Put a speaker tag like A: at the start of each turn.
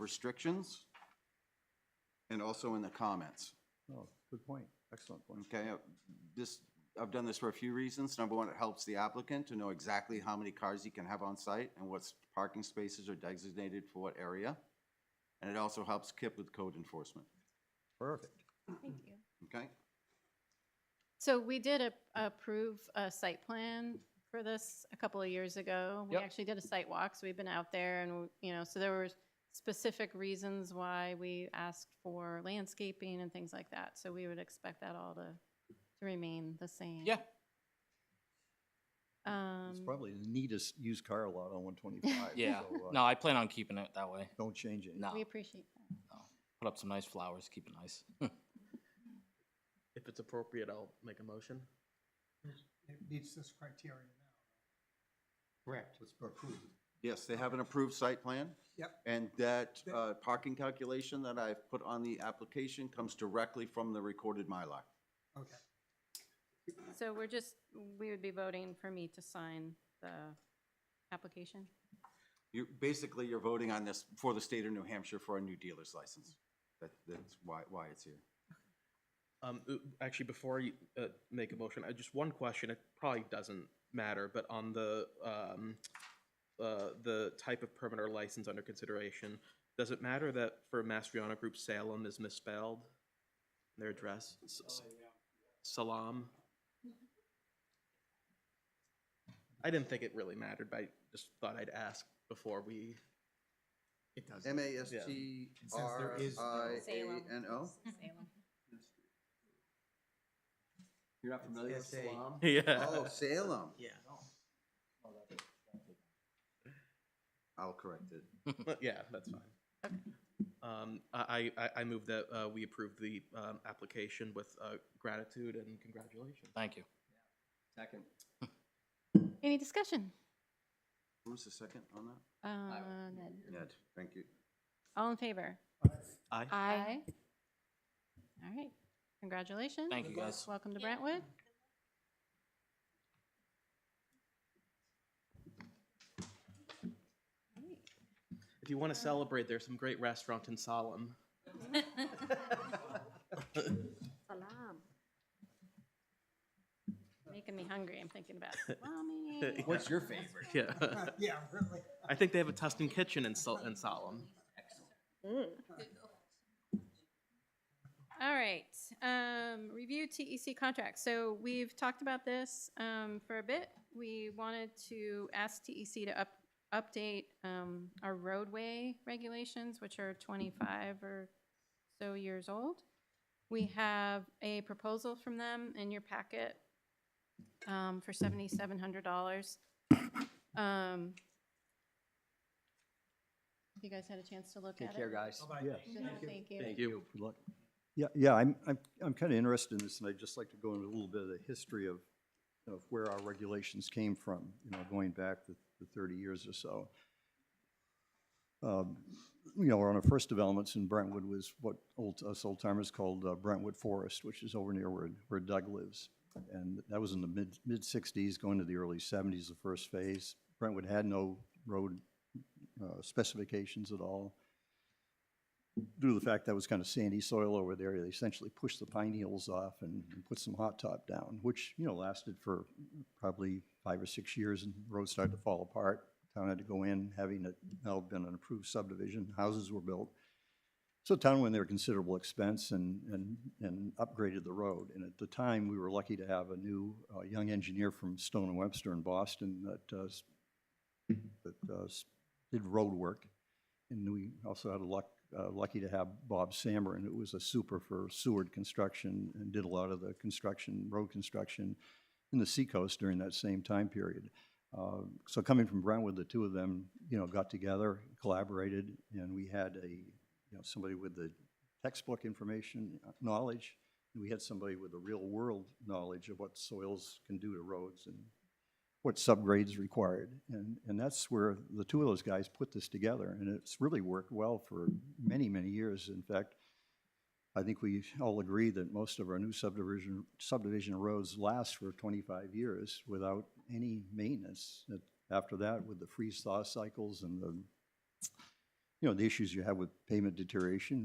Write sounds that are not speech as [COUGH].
A: restrictions and also in the comments.
B: Oh, good point. Excellent point.
C: Mm.
A: Okay, uh, this, I've done this for a few reasons. Number one, it helps the applicant to know exactly how many cars he can have on site and what parking spaces are designated for what area. And it also helps Kip with code enforcement,
B: Perfect.
D: Thank you.
A: okay?
D: So we did a- approve a site plan for this a couple of years ago. We
B: Yep.
D: actually did a site walk, so we've been out there and, you know, so there were specific reasons why we asked for landscaping and things like that. So we would expect that all to, to remain the same.
E: Yeah.
D: Um,
B: It's probably the neatest used car lot on one twenty-five.
E: Um,
B: uh,
E: Yeah. No, I plan on keeping it that way.
B: Don't change it.
E: No.
D: we appreciate that.
E: Put up some nice flowers, keep it nice.
C: If it's appropriate, I'll make a motion.
F: It meets this criteria now. Correct. It's approved.
A: Yes, they have an approved site plan.
F: Yep.
A: And that uh, parking calculation that I've put on the application comes directly from the recorded Mylar.
F: Okay.
D: So we're just, we would be voting for me to sign the application.
A: You, basically, you're voting on this for the state of New Hampshire for a new dealer's license. That, that's why, why it's here.
C: Um, uh, actually, before you, uh, make a motion, I just, one question, it probably doesn't matter, but on the, um, uh, the type of permit or license under consideration, does it matter that for Mastriano Group Salem is misspelled? Their address? S- s- Salam? I didn't think it really mattered, but I just thought I'd ask before we. It does.
A: M A S T E. R I A N O? You're not familiar with Salem?
C: Yeah.
A: Oh, Salem.
C: Yeah.
A: I'll correct it.
C: Uh, Yeah, that's fine. Um, I, I, I- I move that, uh, we approve the, um, application with, uh, gratitude and congratulations.
E: Thank you.
A: Second.
D: Any discussion?
A: Who was the second on that?
D: Uh, Ned.
A: Ned, thank you.
D: All in favor?
C: Aye.
D: Aye. All right, congratulations.
E: Thank you, guys.
D: Welcome to Brentwood.
C: If you want to celebrate, there's some great restaurant in [LAUGHS] Salem.
D: Making me hungry, I'm thinking
E: [LAUGHS]
D: about salami.
C: What's your favorite? [LAUGHS] Yeah.
F: Uh, Yeah, really.
C: I think they have a Tustin kitchen in Sol- in Salem.
D: All right, um, review TEC contract. So we've talked about this, um, for a bit. We wanted to ask TEC to up, update, um, our roadway regulations, which are twenty-five or so years old. We have a proposal from them in your packet, um, for seventy-seven hundred dollars. Um, you guys had a chance to look at it?
G: Take care, guys.
B: Yeah.
D: Thank you.
C: Thank you.
B: Good luck. Yeah, yeah, I'm, I'm, I'm kind of interested in this, and I'd just like to go into a little bit of the history of, of where our regulations came from, you know, going back the, the thirty years or so. Um, You know, one of our first developments in Brentwood was what old, us old timers called uh, Brentwood Forest, which is over near where, where Doug lives. And that was in the mid, mid sixties, going to the early seventies, the first phase. Brentwood had no road uh, specifications at all due to the fact that was kind of sandy soil over there, they essentially pushed the pine needles off and and put some hot top down, which, you know, lasted for probably five or six years, and the road started to fall apart. Town had to go in, having it now been an approved subdivision, houses were built. So town went there at considerable expense and, and, and upgraded the road. And at the time, we were lucky to have a new, uh, young engineer from Stone and Webster in Boston that, uh, s- that, uh, s- did road work. And we also had a luck, uh, lucky to have Bob Sammerin, who was a super for Seward Construction and did a lot of the construction, road construction in the seacoast during that same time period. Uh, So coming from Brentwood, the two of them, you know, got together, collaborated, and we had a, you know, somebody with the textbook information, uh, knowledge, and we had somebody with the real-world knowledge of what soils can do to roads and what subgrades required. And, and that's where the two of those guys put this together, and it's really worked well for many, many years. In fact, I think we all agree that most of our new subdivision, subdivision roads last for 25 years without any maintenance. That- After that, with the freeze-thaw cycles and the you know, the issues you have with pavement deterioration